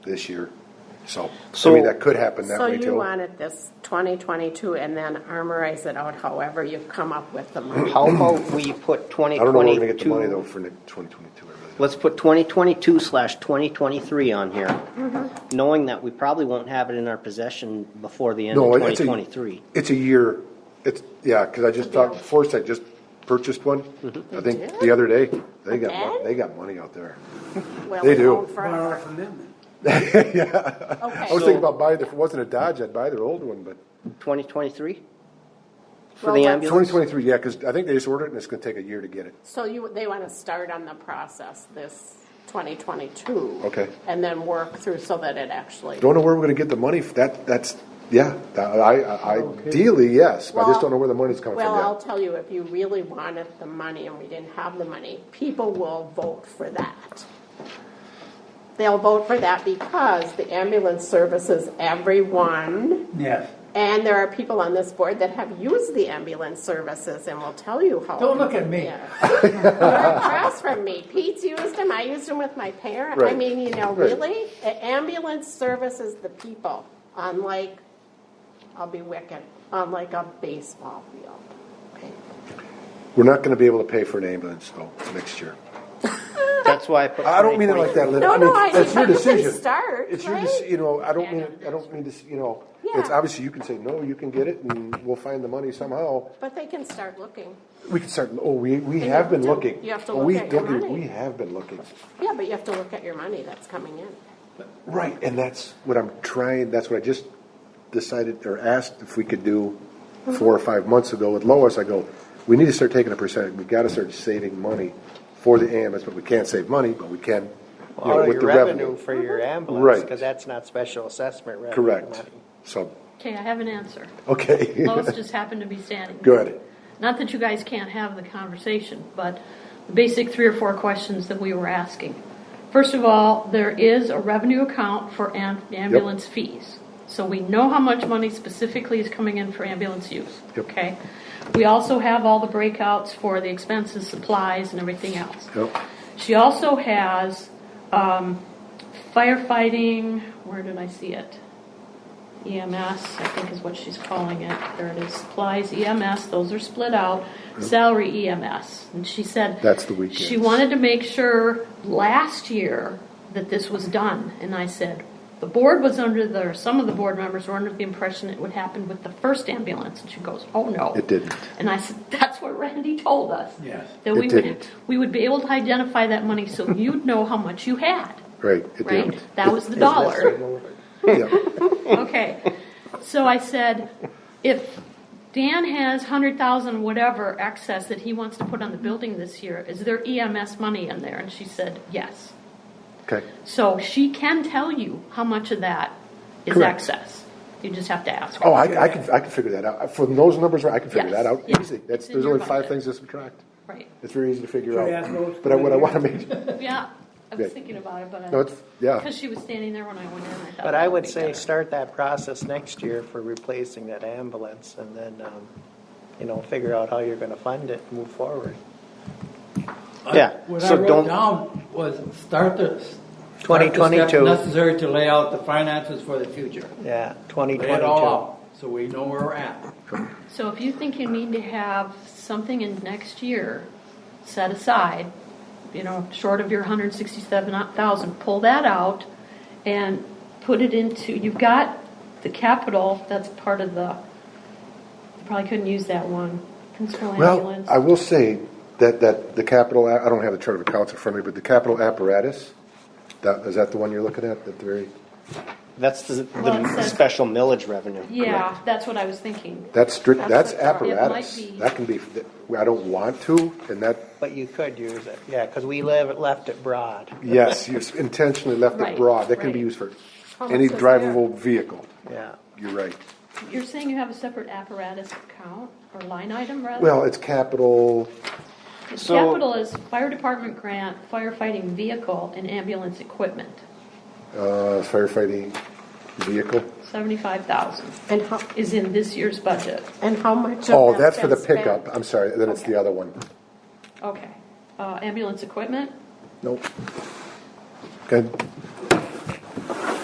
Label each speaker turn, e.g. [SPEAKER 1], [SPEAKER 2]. [SPEAKER 1] this year. So, I
[SPEAKER 2] So-
[SPEAKER 1] mean, that could happen that
[SPEAKER 3] So
[SPEAKER 1] way
[SPEAKER 3] you
[SPEAKER 1] too.
[SPEAKER 3] wanted this 2022 and then armorize it out however you've come up with the money.
[SPEAKER 2] How about we put
[SPEAKER 1] I don't know where we're gonna get the money though
[SPEAKER 2] 2022,
[SPEAKER 1] for ne- 2022. I really don't.
[SPEAKER 2] let's put 2022 slash 2023 on here,
[SPEAKER 4] Mm-hmm.
[SPEAKER 2] knowing that we probably won't have it in our possession before the end of
[SPEAKER 1] No, it's a-
[SPEAKER 2] 2023.
[SPEAKER 1] It's a year, it's, yeah, cause I just thought, Foresight just purchased one, I think the other day. They got, mon-
[SPEAKER 3] Again?
[SPEAKER 1] they got money out there.
[SPEAKER 3] Well,
[SPEAKER 1] They
[SPEAKER 3] we
[SPEAKER 1] do.
[SPEAKER 3] won't
[SPEAKER 5] Borrow
[SPEAKER 3] forever.
[SPEAKER 5] from them then.
[SPEAKER 1] I was thinking
[SPEAKER 3] Okay.
[SPEAKER 1] about buying, if it wasn't a Dodge, I'd buy their old one, but
[SPEAKER 2] 2023? For
[SPEAKER 3] Well,
[SPEAKER 2] the
[SPEAKER 3] but-
[SPEAKER 2] ambulance?
[SPEAKER 1] twenty twenty-three, yeah, cause I think they just ordered it and it's gonna take a year to get it.
[SPEAKER 3] So you, they want to start on the process this 2022.
[SPEAKER 1] Okay.
[SPEAKER 3] And then work through so that it actually.
[SPEAKER 1] Don't know where we're gonna get the money, f- that, that's, yeah, that- I, I, ideally, yes, but I just
[SPEAKER 3] Well-
[SPEAKER 1] don't know where the money's coming
[SPEAKER 3] Well, I'll
[SPEAKER 1] from
[SPEAKER 3] tell you, if you really wanted the money and we didn't have the money, people will vote for that. They'll vote for that because the ambulance services everyone.
[SPEAKER 5] Yes.
[SPEAKER 3] And there are people on this board that have used the ambulance services and will tell you how.
[SPEAKER 5] Don't look at me.
[SPEAKER 3] Yeah. You're across from me. Pete's used them, I used them with my parent. I
[SPEAKER 1] Right.
[SPEAKER 3] mean, you know,
[SPEAKER 1] Right.
[SPEAKER 3] really? A- Ambulance services the people, unlike, I'll be wicked, unlike a baseball field. Okay.
[SPEAKER 1] yet. We're not gonna be able to pay for an ambulance though, next year.
[SPEAKER 2] That's why I put
[SPEAKER 1] I don't mean it like that, Linda.
[SPEAKER 3] No,
[SPEAKER 1] I mean,
[SPEAKER 3] no, I
[SPEAKER 1] that's
[SPEAKER 3] mean,
[SPEAKER 1] your
[SPEAKER 3] it's a
[SPEAKER 1] decision.
[SPEAKER 3] start,
[SPEAKER 1] It's your,
[SPEAKER 3] right?
[SPEAKER 1] deci- you know, I don't mean,
[SPEAKER 3] Yeah.
[SPEAKER 1] I don't mean to, s- you know, it's
[SPEAKER 3] Yeah.
[SPEAKER 1] obviously you can say, no, you can get it and we'll find the money somehow.
[SPEAKER 3] But they can start looking.
[SPEAKER 1] We can start, oh, we, we
[SPEAKER 3] you
[SPEAKER 1] have been
[SPEAKER 3] do.
[SPEAKER 1] looking.
[SPEAKER 3] You have to
[SPEAKER 1] Oh,
[SPEAKER 3] look
[SPEAKER 1] we-
[SPEAKER 3] at your
[SPEAKER 1] look,
[SPEAKER 3] money.
[SPEAKER 1] We have been looking.
[SPEAKER 3] Yeah, but you have to look at your money that's coming in.
[SPEAKER 1] Right, and that's what I'm trying, that's what I just decided or asked if we could do
[SPEAKER 3] Mm-hmm.
[SPEAKER 1] four or five months ago with Lois. I go, we need to start taking a percentage, we've gotta start saving money for the ambulance, but we can't save money, but we can, you know,
[SPEAKER 4] Out of
[SPEAKER 1] with
[SPEAKER 4] Oh, your
[SPEAKER 1] the
[SPEAKER 4] revenue for your ambulance,
[SPEAKER 1] Right.
[SPEAKER 4] because that's not special assessment revenue.
[SPEAKER 1] Correct,
[SPEAKER 4] money.
[SPEAKER 1] so,
[SPEAKER 6] Okay, I have an answer.
[SPEAKER 1] okay.
[SPEAKER 6] Lois just happened to be standing.
[SPEAKER 1] Good.
[SPEAKER 6] Not that you guys can't have the conversation, but the basic three or four questions that we were asking. First of all, there is a revenue account for am- ambulance fees. So we know how much money specifically is coming in for ambulance use,
[SPEAKER 1] Yep.
[SPEAKER 6] okay? We also have all the breakouts for the expenses, supplies, and everything else.
[SPEAKER 1] Yep.
[SPEAKER 6] She also has um, firefighting, where did I see it? EMS, I think is what she's calling it. There it is, supplies, EMS, those are split out, salary EMS. And she said.
[SPEAKER 1] That's the weekends.
[SPEAKER 6] She wanted to make sure last year that this was done. And I said, the board was under the, or some of the board members were under the impression it would happen with the first ambulance. And she goes, oh, no.
[SPEAKER 1] It didn't.
[SPEAKER 6] And I said, that's what Randy told us.
[SPEAKER 5] Yes.
[SPEAKER 6] That
[SPEAKER 1] It
[SPEAKER 6] we would,
[SPEAKER 1] didn't.
[SPEAKER 6] we would be able to identify that money so you'd know how much you had,
[SPEAKER 1] Right, it
[SPEAKER 6] right?
[SPEAKER 1] didn't.
[SPEAKER 6] That was the dollar.
[SPEAKER 1] Yeah.
[SPEAKER 6] Okay, so I said, if Dan has hundred thousand whatever excess that he wants to put on the building this year, is there EMS money in there? And she said, yes.
[SPEAKER 1] Okay,
[SPEAKER 6] So she can tell you how much of that is
[SPEAKER 1] Correct.
[SPEAKER 6] excess. You just have to ask her.
[SPEAKER 1] oh, I, I can, I can figure that out, from those numbers, I can figure
[SPEAKER 6] Yes,
[SPEAKER 1] that out
[SPEAKER 6] yeah.
[SPEAKER 1] easy.
[SPEAKER 6] It's
[SPEAKER 1] That's,
[SPEAKER 6] in
[SPEAKER 1] there's
[SPEAKER 6] your
[SPEAKER 1] only five
[SPEAKER 6] budget.
[SPEAKER 1] things to subtract.
[SPEAKER 6] Right,
[SPEAKER 1] It's very easy to figure
[SPEAKER 5] Should I ask Lois
[SPEAKER 1] out,
[SPEAKER 5] to
[SPEAKER 1] but I-
[SPEAKER 5] put
[SPEAKER 1] what
[SPEAKER 5] it
[SPEAKER 1] I
[SPEAKER 5] in?
[SPEAKER 1] wanna make,
[SPEAKER 6] yeah, I
[SPEAKER 1] Yeah.
[SPEAKER 6] was thinking about it, but I.
[SPEAKER 1] No, it's- yeah.
[SPEAKER 6] Because she was standing there when I went in, I thought.
[SPEAKER 4] But I
[SPEAKER 6] that
[SPEAKER 4] would
[SPEAKER 6] be
[SPEAKER 4] say
[SPEAKER 6] better.
[SPEAKER 4] start that process next year for replacing that ambulance and then, um, you know, figure out how you're gonna fund it, and move forward.
[SPEAKER 2] Yeah,
[SPEAKER 5] What I
[SPEAKER 2] so
[SPEAKER 5] wrote
[SPEAKER 2] don't,
[SPEAKER 5] down was start the. start the steps
[SPEAKER 4] 2022.
[SPEAKER 5] Necessary to lay out the finances for the future.
[SPEAKER 4] Yeah,
[SPEAKER 5] Lay it all
[SPEAKER 4] 2022.
[SPEAKER 5] out, so we know where we're at.
[SPEAKER 6] So if you think you need to have something in next year set aside, you know, short of your hundred sixty-seven thousand, pull that out and put it into, you've got the capital, that's part of the, you probably couldn't use that one, principal
[SPEAKER 1] well,
[SPEAKER 6] ambulance.
[SPEAKER 1] I will say that, that the capital, a- I don't have the chart of accounts in front of me, but the capital apparatus, that, is that the one you're looking at, at the very,
[SPEAKER 2] that's the,
[SPEAKER 6] Well, it
[SPEAKER 2] the
[SPEAKER 6] says-
[SPEAKER 2] special millage revenue.
[SPEAKER 6] Yeah, that's what I was thinking.
[SPEAKER 1] that's strict, that's
[SPEAKER 3] That's the chart.
[SPEAKER 6] It
[SPEAKER 1] apparatus.
[SPEAKER 6] might be-
[SPEAKER 1] That can be, I don't want to, and that,
[SPEAKER 4] But you could use it, yeah, because we live, left it broad.
[SPEAKER 1] yes, you've intentionally left it
[SPEAKER 6] Right,
[SPEAKER 1] broad, that can be
[SPEAKER 6] right.
[SPEAKER 1] used for
[SPEAKER 3] How much
[SPEAKER 1] any
[SPEAKER 3] is there?
[SPEAKER 1] drivable vehicle.
[SPEAKER 4] Yeah,
[SPEAKER 1] You're right.
[SPEAKER 6] You're saying you have a separate apparatus account or line item rather?
[SPEAKER 1] Well, it's capital,
[SPEAKER 6] The
[SPEAKER 2] So-
[SPEAKER 6] Capital is fire department grant, firefighting vehicle, and ambulance equipment,
[SPEAKER 1] uh, firefighting vehicle.
[SPEAKER 6] seventy-five thousand.
[SPEAKER 3] And how,
[SPEAKER 6] is in this year's budget.
[SPEAKER 3] and how much of
[SPEAKER 1] Oh,
[SPEAKER 3] that's
[SPEAKER 1] that's for the
[SPEAKER 3] been spent?
[SPEAKER 1] pickup, I'm sorry, then it's the other one.
[SPEAKER 6] Okay. Uh, ambulance equipment,
[SPEAKER 1] Nope. Good,